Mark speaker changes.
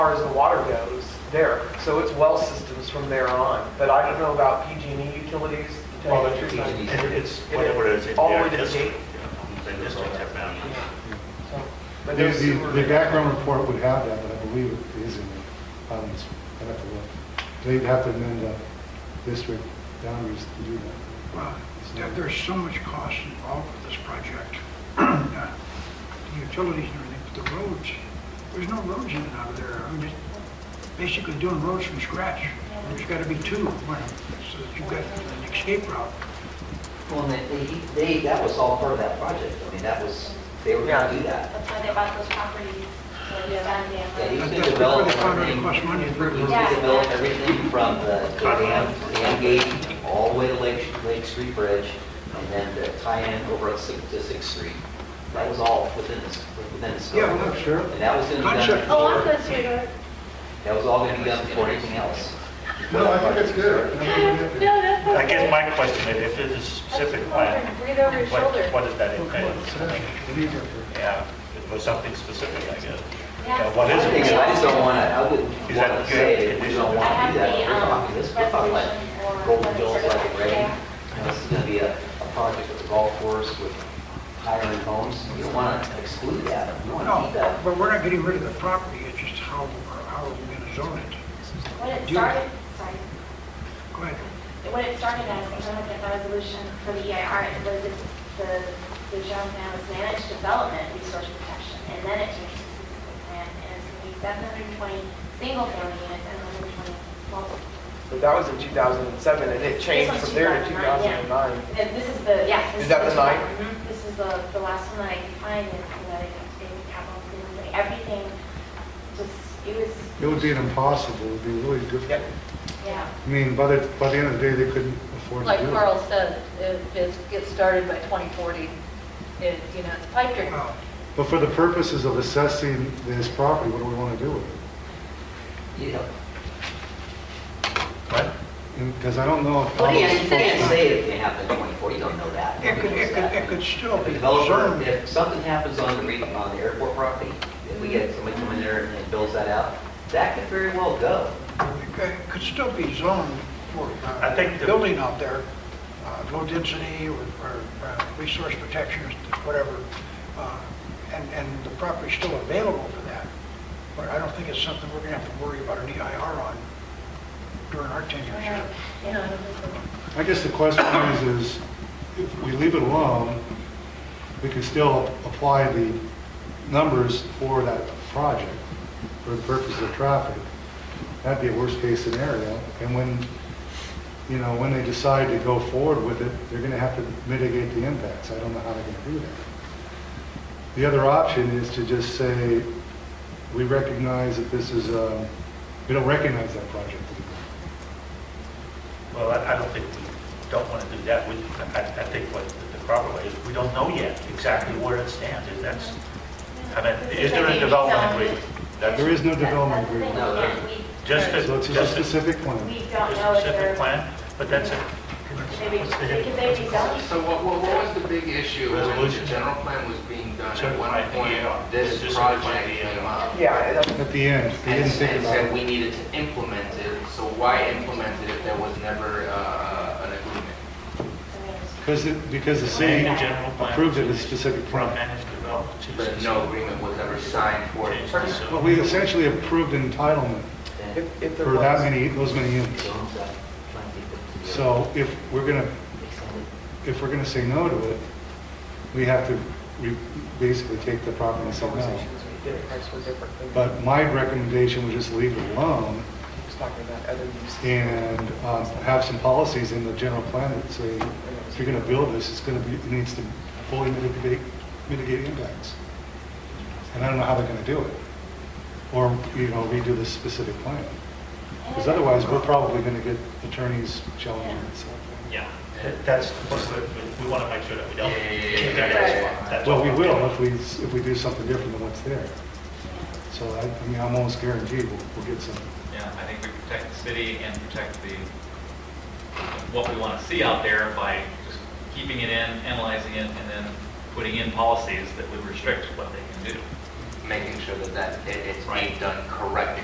Speaker 1: far as the water goes there. So it's well systems from there on. But I don't know about PG&E E utilities.
Speaker 2: Well,
Speaker 1: to tell you the truth.
Speaker 2: it's- E, it's whatever it is. it's
Speaker 1: All the way to
Speaker 2: their
Speaker 1: the
Speaker 2: district,
Speaker 1: gate.
Speaker 2: yeah. Their district, their boundary.
Speaker 1: So, But
Speaker 3: The,
Speaker 1: there's
Speaker 3: the-
Speaker 1: sewer.
Speaker 3: the background report would have that, but I believe it is in the boundaries. I'd have to look. They'd have to amend the district boundaries to do that.
Speaker 4: Well, there- Uh, there's so much cost involved with this project. Uh, The Utilities and everything, but the roads, there's no roads in and out of there. I mean, it's basically doing roads from scratch. There's got to be two, one, so that you've got an escape route.
Speaker 5: Well, and they- they, they, that was all part of that project. I mean, that was, they were gonna do that.
Speaker 6: That's why they bought those properties, like
Speaker 5: Yeah,
Speaker 6: Sandia.
Speaker 5: he was
Speaker 4: That-
Speaker 5: gonna
Speaker 4: that's where
Speaker 5: develop
Speaker 4: they found out it
Speaker 5: everything.
Speaker 4: costs money.
Speaker 5: He was
Speaker 6: Yeah.
Speaker 5: gonna develop everything from the the dam, dam gate, all the way to Lake, Lake Street Bridge, and then the tie-in over at Sixth, to Sixth Street. That was all within this, within the scope.
Speaker 4: Yeah, well, sure.
Speaker 5: And that was gonna be done
Speaker 4: Concept.
Speaker 6: Oh, I'm
Speaker 5: before,
Speaker 6: good, sweetheart.
Speaker 5: that was all gonna be done before anything else.
Speaker 3: No, I think that's good. I think that-
Speaker 6: No, that's okay.
Speaker 2: I guess my question is, if it's a specific plan,
Speaker 6: Breathe over your
Speaker 2: what,
Speaker 6: shoulder.
Speaker 2: what does that
Speaker 3: Look what
Speaker 2: entail?
Speaker 3: it says. It is up there.
Speaker 2: Yeah, it was something specific, I guess.
Speaker 6: Yeah.
Speaker 2: Uh, What is
Speaker 5: I
Speaker 2: it?
Speaker 5: think- I just don't wanna, I wouldn't
Speaker 2: Is that
Speaker 5: wanna
Speaker 2: good
Speaker 5: say that we
Speaker 2: condition?
Speaker 5: don't
Speaker 6: I
Speaker 5: wanna
Speaker 6: have
Speaker 5: do that.
Speaker 6: the,
Speaker 5: We're talking
Speaker 6: um,
Speaker 5: this,
Speaker 6: resolution
Speaker 5: we're talking like
Speaker 6: for
Speaker 5: Golden Girls like rain.
Speaker 6: Yeah.
Speaker 5: You know, This is going to be a, a project with a golf course with higher-end homes. You don't want to exclude that. You want to keep
Speaker 4: No,
Speaker 5: that.
Speaker 4: but we're not getting rid of the property, it's just how, how are we going to zone it?
Speaker 6: When it
Speaker 4: Do-
Speaker 6: started, sorry,
Speaker 4: Go ahead.
Speaker 6: when it started as, I was looking at the resolution for the EIR, it was the, the zone now is managed development resource protection, and then it changed to specific plan, and it's gonna be seven hundred and twenty single-family units and one hundred and twenty multiple.
Speaker 1: But that was in 2007 and it changed
Speaker 6: This
Speaker 1: from
Speaker 6: was
Speaker 1: there to
Speaker 6: 2009,
Speaker 1: 2009.
Speaker 6: And this is the, yeah. this
Speaker 1: Is that the nine?
Speaker 6: Mhm. This is the, the last one that I can find, and that I have to take capital, improvements, like, everything, just, it was,
Speaker 3: It would be an impossible, it would be really
Speaker 1: Yep.
Speaker 3: difficult.
Speaker 6: yeah.
Speaker 3: I mean, by the, by the end of the day, they couldn't afford to
Speaker 7: Like
Speaker 3: do it.
Speaker 7: Carl said, if it gets started by 2040, it, you know, it's a pipe dream.
Speaker 4: Well,
Speaker 3: But for the purposes of assessing this property, what do we want to do with it?
Speaker 5: You know,
Speaker 2: What?
Speaker 3: Because I don't know. if-
Speaker 7: What do
Speaker 5: you
Speaker 7: you
Speaker 5: can't
Speaker 7: think?
Speaker 5: say it can happen in 24. You don't know that.
Speaker 4: It could,
Speaker 5: Nobody knows
Speaker 4: it could,
Speaker 5: that.
Speaker 4: it could still
Speaker 5: If a
Speaker 4: be
Speaker 5: developer,
Speaker 4: zoned.
Speaker 5: if something happens on the, re- on the airport property, if we get somebody come in there and builds that out, that could very well go.
Speaker 4: It could still be zoned for uh,
Speaker 2: I think the-
Speaker 4: building out there, uh, low density or or, uh, resource protection, whatever, uh, and, and the property's still available for that. But I don't think it's something we're going to have to worry about an EIR on during our tenure.
Speaker 6: Yeah.
Speaker 4: sure.
Speaker 3: I guess the question is, is if we leave it alone, we can still apply the numbers for that project for the purpose of traffic. That'd be a worst-case scenario. And when, you know, when they decide to go forward with it, they're going to have to mitigate the impacts. I don't know how they're going to do that. The other option is to just say, we recognize that this is, um, we don't recognize that project anymore.
Speaker 2: Well, I, I don't think we don't want to do that. We, I, I think what the proper way is, we don't know yet exactly where it stands. Is that's, I mean, is there a development agreement?
Speaker 3: There
Speaker 2: That's
Speaker 3: is no development
Speaker 6: That's the thing,
Speaker 3: agreement.
Speaker 5: No, there-
Speaker 6: yeah, we-
Speaker 2: just a,
Speaker 3: So it's just
Speaker 2: just
Speaker 3: a
Speaker 2: a
Speaker 3: specific
Speaker 6: We
Speaker 3: plan.
Speaker 6: don't know if they're,
Speaker 2: specific plan, but that's a.
Speaker 6: could they be, could they be selling?
Speaker 8: So what, what what was the big issue when the
Speaker 2: Resolution.
Speaker 8: general plan was being done? At one
Speaker 2: Certified EAR.
Speaker 8: point, this
Speaker 2: This is certified
Speaker 8: project
Speaker 2: EAR.
Speaker 8: came up.
Speaker 1: Yeah, that's-
Speaker 3: At the end, they
Speaker 8: And
Speaker 3: uh, didn't
Speaker 8: and
Speaker 3: think about
Speaker 8: said
Speaker 3: it.
Speaker 8: we needed to implement it, so why implement it if there was never uh, an agreement?
Speaker 3: Because, it- because the city
Speaker 2: General plan.
Speaker 3: approved it as a specific plan.
Speaker 2: Managed development. to-
Speaker 8: But no agreement was ever signed for it.
Speaker 2: Change the-
Speaker 3: But we essentially approved entitlement
Speaker 5: Then,
Speaker 1: if if there
Speaker 3: for that
Speaker 1: was-
Speaker 3: many, those many units.
Speaker 5: so, I'm trying to keep it together.
Speaker 3: So if we're going to,
Speaker 5: Makes sense.
Speaker 3: if we're going to say no to it, we have to, we basically take the property and say no.
Speaker 1: Conversations we did, price were different. than-
Speaker 3: But my recommendation was just leave it alone
Speaker 1: Just talking about other uses.
Speaker 3: and um, have some policies in the general plan that say, if you're going to build this, it's going to be, it needs to fully mitigate, mitigate impacts. And I don't know how they're going to do it. Or, you know, redo this specific plan. Because otherwise, we're probably going to get attorneys challenging it. so.
Speaker 2: Yeah, that- that's, the first we, we- we want to make sure that we don't.
Speaker 8: Yeah, yeah, yeah, yeah,
Speaker 2: That's
Speaker 8: yeah.
Speaker 2: what- that's
Speaker 3: Well,
Speaker 2: what
Speaker 3: we
Speaker 2: we're
Speaker 3: will
Speaker 2: doing.
Speaker 3: if we, if we do something different than what's there. So I, I mean, I'm almost guaranteed we'll, we'll get some.
Speaker 9: Yeah, I think we protect the city and protect the, what we want to see out there by just keeping it in, analyzing it, and then putting in policies that would restrict what they can do.
Speaker 8: Making sure that that, it- it's being
Speaker 9: Right.
Speaker 8: done correctly.